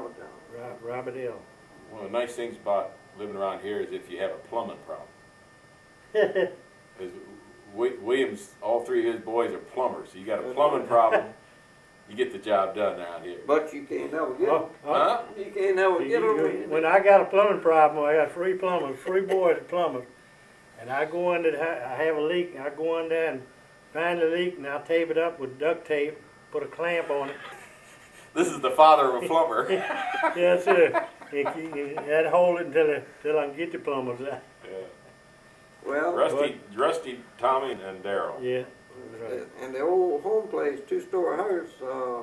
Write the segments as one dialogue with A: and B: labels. A: Ro- Robert L.
B: One of the nice things about living around here is if you have a plumbing problem, because Williams, all three of his boys are plumbers, so you got a plumbing problem, you get the job done around here.
C: But you can't never get,
A: Oh, oh,
B: Huh?
C: you can't never
A: you-
C: get
A: you-
C: them.
A: When I got a plumbing problem, I got free plumbers, free boys to plumbers, and I go in, there, I have a leak, and I go in there and find the leak, and I tape it up with duct tape, put a clamp on it,
B: This is the father of a plumber. Yeah.
A: Yes, sir. It, it, that hold it until, it- until I can get the plumbers out.
C: Well,
B: Rusty, Rusty, Tommy, and Daryl.
A: Yeah.
C: the- and the old home place, two-story house, uh,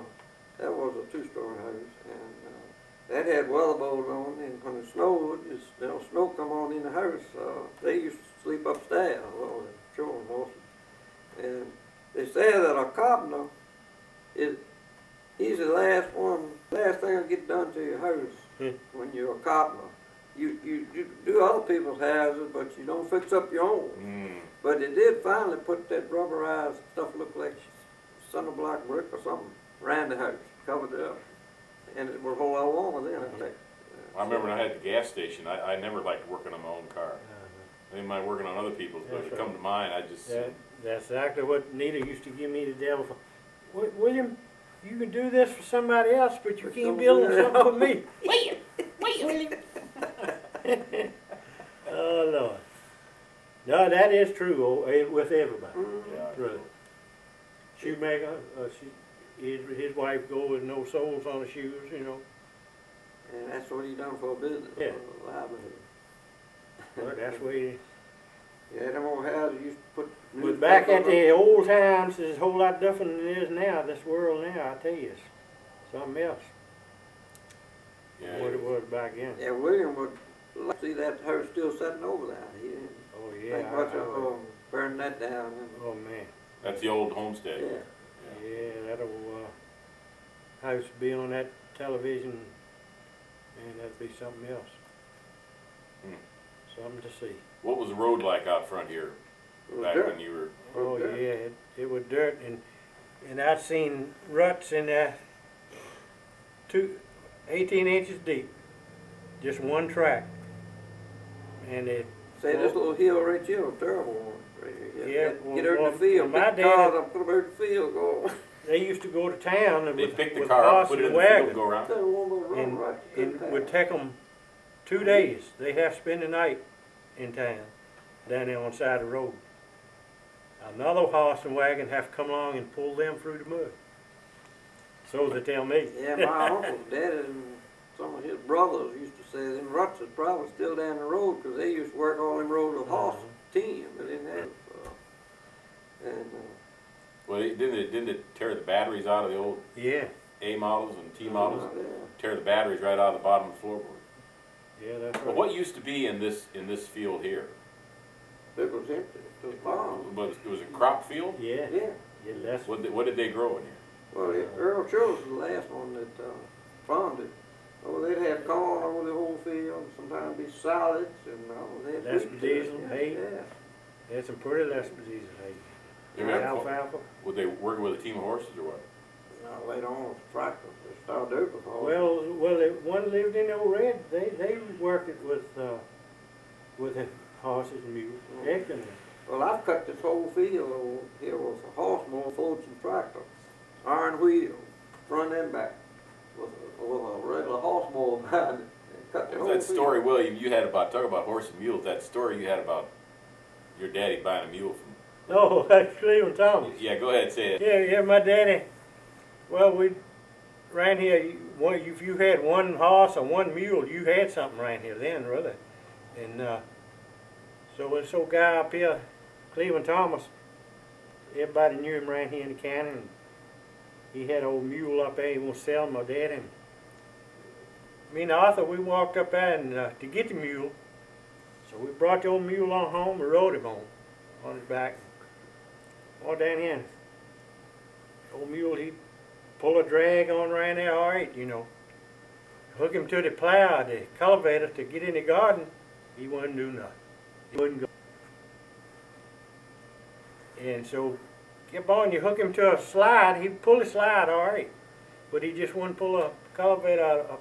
C: that was a two-story house, and, uh, that had weather bows on, and when it snowed, it's, you know, snow come on in the house, uh, they used to sleep upstairs, well, the children also. And they say that a carpenter is, he's the last one, last thing to get done to your
A: Hmm.
C: house when you're a carpenter. You, you, you do other people's houses, but you don't fix up your own.
B: Mm.
C: But they did finally put that rubberized stuff looked like cinder block brick or something around the house, covered it up. And it was a whole lot longer then, I think. Mm-hmm.
B: I remember when I had the gas station, I, I never liked working on my own car. I didn't mind working on other people's, but if it come to mine, I just,
A: That, that's exactly what Nita used to give me the devil for. "Wi- William, you can do this for somebody else, but you
C: But
A: can't
C: don't
A: build
C: do it."
A: something for me. William, William. oh, Lord. No, that is true oh, eh, with everybody.
C: Mhm.
B: yeah.
A: Really. Shoemaker, uh, she, his, his wife go with no soles on her shoes, you know.
C: And that's what he done for a business,
A: Yeah.
C: for a livelihood.
A: Well, that's where you
C: Yeah, them old houses used to put.
A: But back at
C: newspaper-
A: the old times, there's a whole lot different than it is now, this world now, I tell you, it's something else,
B: Yeah.
A: than what it was back then.
C: Yeah, William would like to see that house still sitting over there. He didn't
A: Oh, yeah.
C: think
A: I-
C: much
A: I-
C: of, um, burning that down and,
A: Oh, man,
B: That's the old homestead.
C: yeah.
A: yeah, that old, uh, house be on that television, and that'd be something else.
B: Hmm.
A: Something to see.
B: What was the road like out front here
C: It was
B: back
C: dirt.
B: when you were?
A: Oh, yeah,
C: Okay.
A: it, it was dirt, and, and I seen ruts in there, two, eighteen inches deep, just one track. And it,
C: Say, this little hill right here, a terrible one. right here.
A: Yeah,
C: Get-
A: well,
C: Get her
A: well,
C: in the field,
A: my
C: pick the
A: dad-
C: cars up, put them in the field, go.
A: they used to go to town and
B: They
A: with,
B: picked the
A: with
B: car up,
A: horse
B: put it in
A: and
B: the field,
A: wagon.
B: go around.
C: That one was run
A: And,
C: right through
A: and
C: town.
A: would take them two days, they'd have to spend the night in town, down there on the side of the road. Another horse and wagon have to come along and pull them through the mud. So they tell me.
C: Yeah, my uncle's dad and some of his brothers used to say them ruts is probably still down the road 'cause they used to work all them roads with
A: Uh-huh.
C: horse team, but didn't have, uh, and, uh,
B: Well, it- didn't it, didn't it tear the batteries out of the old
A: Yeah,
B: A models and T models?
C: yeah.
B: Tear the batteries right out of the bottom of the floorboard.
A: yeah, that's
B: But
A: right.
B: what used to be in this, in this field here?
C: It was empty, it was farm.
B: Was, it was a crop field?
A: Yeah,
C: Yeah,
A: yeah, that's
B: What, did- what did they grow in here?
C: well, it- Earl Childs was the last one that, uh, farmed it. Oh, they'd have corn over the whole field, and sometimes be salads and, oh, they'd.
A: That's
C: wheat to it,
A: diesel,
C: yeah,
A: hay.
C: Yeah.
A: There's some pretty less diseases,
B: They
A: hey.
B: were-
A: Alfalfa.
C: Oh.
B: Were they working with a team of horses or what?
C: Now, later on, tractors, they started over.
A: Well, well, they- one lived in Old Red, they, they worked it with, uh, with the horses and mules,
C: Oh.
A: excellent.
C: Well, I've cut this whole field over here with a horse mower, fortune tractor, iron wheel, front and back, with a, with a regular horse mower behind it. and Cut the whole
B: That
C: field.
B: story, William, you had about, talk about horse and mules, that story you had about your daddy buying a mule from,
A: Oh, that's Cleveland Thomas.
B: yeah, go ahead, say it.
A: Yeah, yeah, my daddy, well, we, ran here, you- one, if you had one horse or one mule, you had something around here then, really. And, uh, so this old guy up here, Cleveland Thomas, everybody knew him around here in the county, and he had old mule up there, he was selling my dad, and me and Arthur, we walked up there and, uh, to get the mule, so we brought the old mule on home, and rode him home, on his back, all down here. Old mule, he pull a drag on around there, all right, you know. Hook him to the plow, the cultivator to get in the garden, he wouldn't do nothing. He wouldn't go. And so, kept on, you hook him to a slide, he'd pull the slide, all right. But he just wouldn't pull a cultivator out, a